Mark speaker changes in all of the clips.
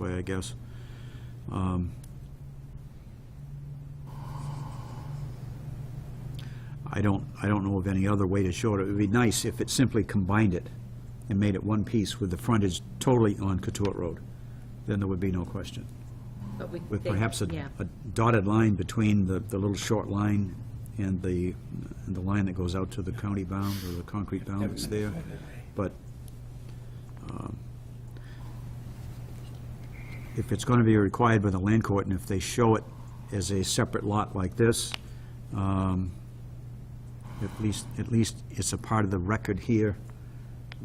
Speaker 1: way, I guess. Um, I don't, I don't know of any other way to show it. It would be nice if it simply combined it and made it one piece with the frontage totally on Cotuit Road. Then there would be no question.
Speaker 2: But we-
Speaker 1: With
Speaker 2: they-
Speaker 1: perhaps a
Speaker 2: yeah.
Speaker 1: a dotted line between the, the little short line and the, and the line that goes out to the county bound or the concrete bound that's there. But um, if it's going to be required by the land court, and if they show it as a separate lot like this, um, at least, at least it's a part of the record here,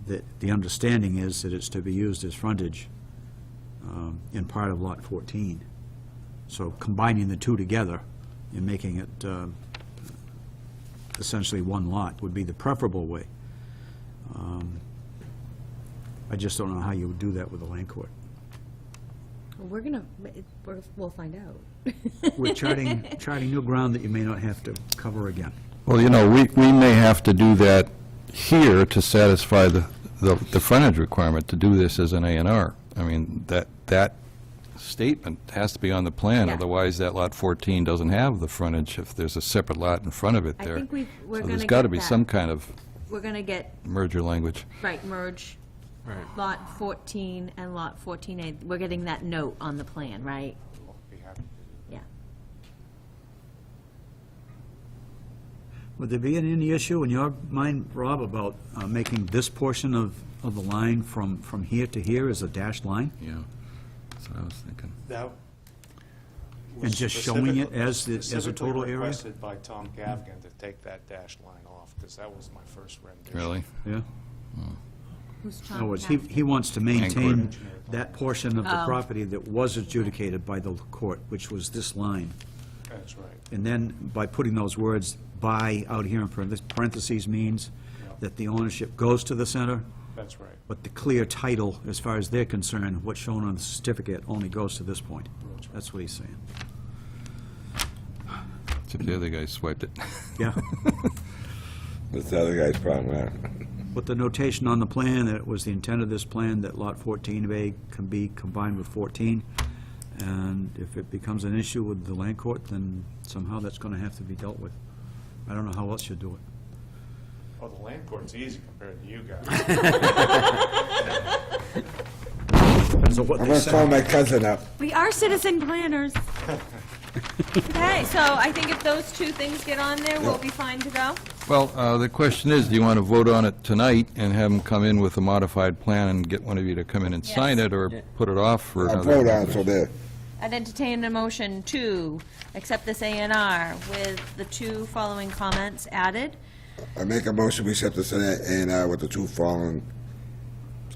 Speaker 1: that the understanding is that it's to be used as frontage um, in part of Lot 14. So combining the two together and making it um, essentially one lot would be the preferable way. Um, I just don't know how you would do that with the land court.
Speaker 2: Well, We're gonna, it- we're, we'll find out.
Speaker 1: We're charting, charting new ground that you may not have to cover again.
Speaker 3: Well, you know, we, we may have to do that here to satisfy the, the the frontage requirement, to do this as an A and R. I mean, that, that statement has to be on the plan,
Speaker 2: Yeah.
Speaker 3: otherwise that lot 14 doesn't have the frontage if there's a separate lot in front of it
Speaker 2: I
Speaker 3: there.
Speaker 2: think we've, we're
Speaker 3: So
Speaker 2: gonna
Speaker 3: there's got to
Speaker 2: get
Speaker 3: be
Speaker 2: that.
Speaker 3: some kind of
Speaker 2: We're gonna get,
Speaker 3: merger language.
Speaker 2: right, merge lot fourteen and lot fourteen A. We're getting that note on the plan, right? Yeah.
Speaker 1: Would there be any- any issue in your mind, Rob, about uh, making this portion of, of the line from, from here to here as a dashed line?
Speaker 3: Yeah, that's what I was thinking.
Speaker 4: That was
Speaker 1: And just showing it
Speaker 4: specifically-
Speaker 1: as the- as a total
Speaker 4: Specifically
Speaker 1: area?
Speaker 4: requested by Tom Gafgan to take that dash line off, because that was my first rendition.
Speaker 3: Really?
Speaker 1: Yeah.
Speaker 2: Who's
Speaker 1: In
Speaker 2: Tom?
Speaker 1: other words, he,
Speaker 2: Cap-
Speaker 1: he wants to maintain
Speaker 3: Land
Speaker 1: that portion of the
Speaker 2: Oh.
Speaker 1: property that was adjudicated by the court, which was this line.
Speaker 4: That's right.
Speaker 1: And then by putting those words "by" out here in parenthes- parentheses means that the ownership goes to the center,
Speaker 4: That's right.
Speaker 1: But the clear title, as far as they're concerned, what's shown on the certificate only goes to this point.
Speaker 4: That's right.
Speaker 1: That's what he's saying.
Speaker 3: Except the other guy swiped it.
Speaker 1: Yeah,
Speaker 5: That's the other guy's problem, huh?
Speaker 1: with the notation on the plan that it was the intent of this plan that Lot 14A can be combined with 14, and if it becomes an issue with the land court, then somehow that's going to have to be dealt with. I don't know how else you do it.
Speaker 4: Oh, the land court's easy compared to you guys.
Speaker 1: Depends on what
Speaker 5: I'm
Speaker 1: they
Speaker 5: gonna call
Speaker 1: say.
Speaker 5: my cousin up.
Speaker 2: We are citizen planners. Okay, so I think if those two things get on there, we'll be fine to go.
Speaker 3: Well, uh, the question is, do you want to vote on it tonight and have them come in with a modified plan and get one of you to come in and sign it, or put it off for
Speaker 5: I'll
Speaker 3: another?
Speaker 5: vote on it, so there.
Speaker 2: I'd entertain a motion to accept this A and R with the two following comments added.
Speaker 5: I make a motion, we accept this A and R with the two following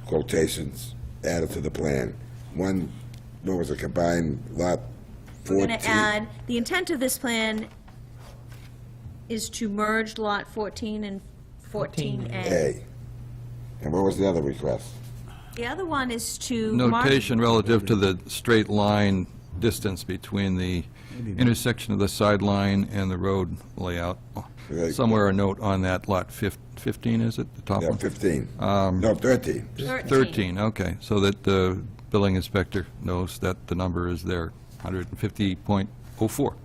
Speaker 5: quotations added to the plan. One, what was it, combined lot
Speaker 2: We're
Speaker 5: fourteen?
Speaker 2: going to add, the intent of this plan is to merge Lot 14 and 14A.
Speaker 5: A. And what was the other request?
Speaker 2: The other one is to mark...
Speaker 3: notation relative to the straight line distance between the intersection of the sideline and the road layout.
Speaker 5: Right.
Speaker 3: Somewhere a note on that lot fif- 15, is it, the top
Speaker 5: Yeah,
Speaker 1: Um,
Speaker 3: one?
Speaker 5: fifteen. No, thirteen.
Speaker 3: 13, okay, so that the billing inspector knows that the number is there, 150.04.
Speaker 2: Oh, four.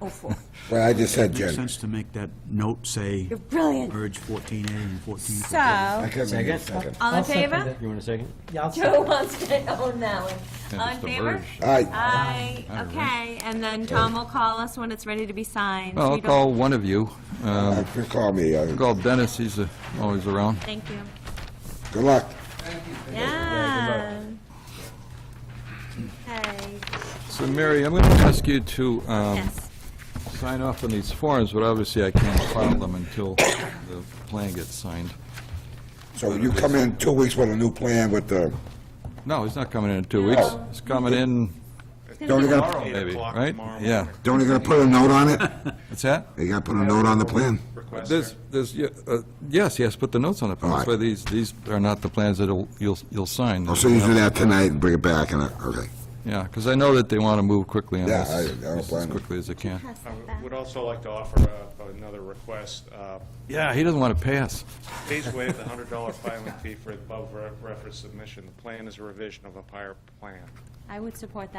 Speaker 5: Well, I just said,
Speaker 1: Makes
Speaker 5: Jen.
Speaker 1: sense to make that note say,
Speaker 2: You're brilliant.
Speaker 1: merge 14A and 14.
Speaker 2: So,
Speaker 5: I
Speaker 2: all
Speaker 5: couldn't make a
Speaker 6: Second.
Speaker 5: second.
Speaker 2: in
Speaker 6: I'll second
Speaker 2: favor?
Speaker 6: it. You want a second? Yeah, I'll
Speaker 2: Joe wants to own that one.
Speaker 3: Yeah,
Speaker 2: All in
Speaker 3: just a
Speaker 2: favor?
Speaker 3: merge.
Speaker 5: Aye,
Speaker 2: uh, Aye,
Speaker 3: Aye.
Speaker 2: okay, and then Tom will call us when it's ready to be signed. We
Speaker 3: Well, I'll
Speaker 2: don't-
Speaker 3: call one of you. Uh,
Speaker 5: Uh, just call me, uh,
Speaker 3: Call Dennis, he's uh, always around.
Speaker 2: Thank you.
Speaker 5: good luck.
Speaker 2: Yeah. Okay,
Speaker 3: So Mary, I'm going to ask you to um,
Speaker 2: yes.
Speaker 3: sign off on these forms, but obviously I can't file them until the plan gets signed.
Speaker 5: So you come in two weeks with a new plan with the,
Speaker 3: No, he's not coming in in two weeks. He's coming in,
Speaker 5: they're only gonna,
Speaker 4: Tomorrow, eight
Speaker 3: maybe,
Speaker 4: o'clock
Speaker 3: right?
Speaker 4: tomorrow
Speaker 3: Yeah.
Speaker 4: morning.
Speaker 5: they're only gonna put a note on it?
Speaker 3: What's that?
Speaker 5: They gotta put a note on the plan?
Speaker 4: Request
Speaker 3: There's, there's, yeah, uh, yes, yes, put the notes on the plans,
Speaker 5: All right. Oh,
Speaker 3: but these, these are not the plans that you'll, you'll sign.
Speaker 5: I'll soon as you do that tonight and bring it back and, I- okay.
Speaker 3: Yeah, because I know that they want to move quickly on
Speaker 5: Yeah,
Speaker 3: this,
Speaker 5: I- I don't
Speaker 3: just as
Speaker 5: blame 'em.
Speaker 3: quickly as they can.
Speaker 2: Pass
Speaker 4: I
Speaker 2: that
Speaker 5: Uh.
Speaker 2: back.
Speaker 4: would also like to offer uh, another request. Uh,
Speaker 3: Yeah, he doesn't want to pass.
Speaker 4: Please waive the hundred dollar filing fee for above re- reference submission. The plan is a revision of a prior plan.
Speaker 2: I would support that.